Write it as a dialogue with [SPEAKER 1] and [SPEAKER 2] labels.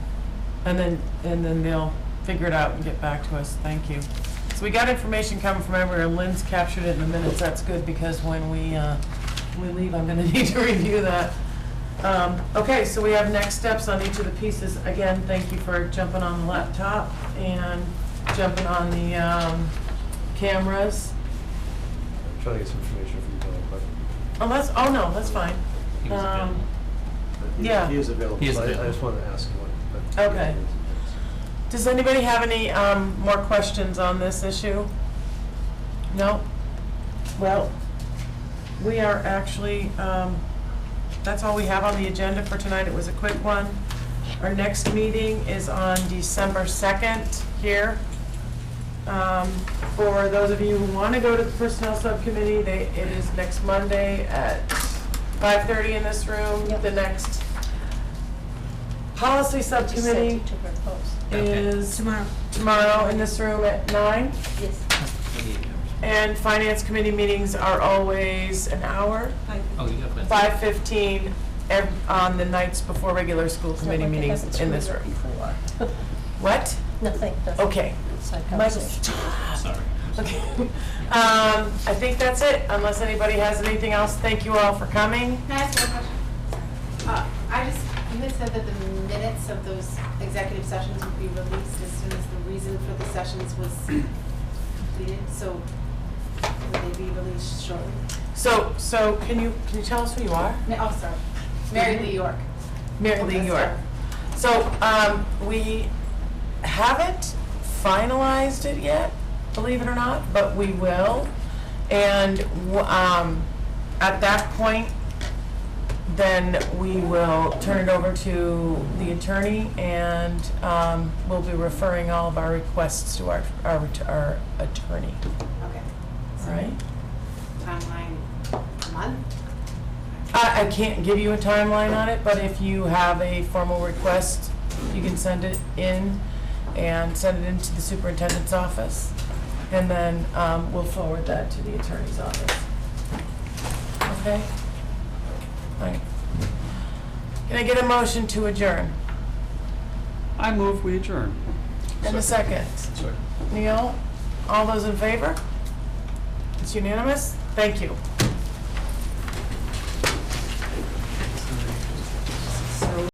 [SPEAKER 1] And then, and then they'll figure it out and get back to us. Thank you. So we got information coming from everywhere. Lynn's captured it in the minutes. That's good because when we, uh, we leave, I'm gonna need to review that. Um, okay, so we have next steps on each of the pieces. Again, thank you for jumping on the laptop and jumping on the, um, cameras.
[SPEAKER 2] I'm trying to get some information from Bill, but.
[SPEAKER 1] Oh, that's, oh no, that's fine.
[SPEAKER 3] He was
[SPEAKER 1] Um,
[SPEAKER 3] available.
[SPEAKER 2] but he-
[SPEAKER 1] Yeah.
[SPEAKER 2] He is available.
[SPEAKER 3] He is
[SPEAKER 2] so I- I
[SPEAKER 3] available.
[SPEAKER 2] just wanted to ask him what. but-
[SPEAKER 1] Okay. Does anybody have any um, more questions on this issue? No? Well, we are actually, um, that's all we have on the agenda for tonight. It was a quick one. Our next meeting is on December 2nd here. Um, For those of you who want to go to the Personnel Subcommittee, they- it is next Monday at 5:30 in this room.
[SPEAKER 4] Yep.
[SPEAKER 1] The next Policy
[SPEAKER 4] Just sent
[SPEAKER 1] Subcommittee
[SPEAKER 4] it to her post.
[SPEAKER 3] Okay.
[SPEAKER 1] is
[SPEAKER 4] Tomorrow.
[SPEAKER 1] tomorrow in this room at nine.
[SPEAKER 4] Yes.
[SPEAKER 3] Maybe it covers.
[SPEAKER 1] And finance committee meetings are always an hour,
[SPEAKER 3] Oh, you got Wednesday.
[SPEAKER 1] five fifteen, on the nights before regular school committee meetings in this room. What?
[SPEAKER 4] Nothing, nothing.
[SPEAKER 1] Okay.
[SPEAKER 4] Side
[SPEAKER 1] Michael,
[SPEAKER 4] conversation.
[SPEAKER 3] Sorry.
[SPEAKER 1] Okay. Um, I think that's it, unless anybody has anything else. Thank you all for coming.
[SPEAKER 5] Can I ask one question? Uh, I just, you had said that the minutes of those executive sessions would be released as soon as the reason for the sessions was completed, so will they be released shortly?
[SPEAKER 1] So, so can you, can you tell us who you are?
[SPEAKER 5] Ma- Oh, sorry, Mary Lee York.
[SPEAKER 1] Mary Lee York. So, um, we haven't finalized it yet, believe it or not, but we will. And, w- um, at that point, then we will turn it over to the attorney and, um, we'll be referring all of our requests to our, our, our attorney,
[SPEAKER 5] Okay.
[SPEAKER 1] all right?
[SPEAKER 5] Timeline, a month?
[SPEAKER 1] I, I can't give you a timeline on it, but if you have a formal request, you can send it in and send it into the superintendent's office. And then, um, we'll forward that to the attorney's office. Okay? All right. Can I get a motion to adjourn?
[SPEAKER 6] I move we adjourn.
[SPEAKER 1] And a second.
[SPEAKER 2] Sorry.
[SPEAKER 1] Neil, all those in favor? It's unanimous? Thank you.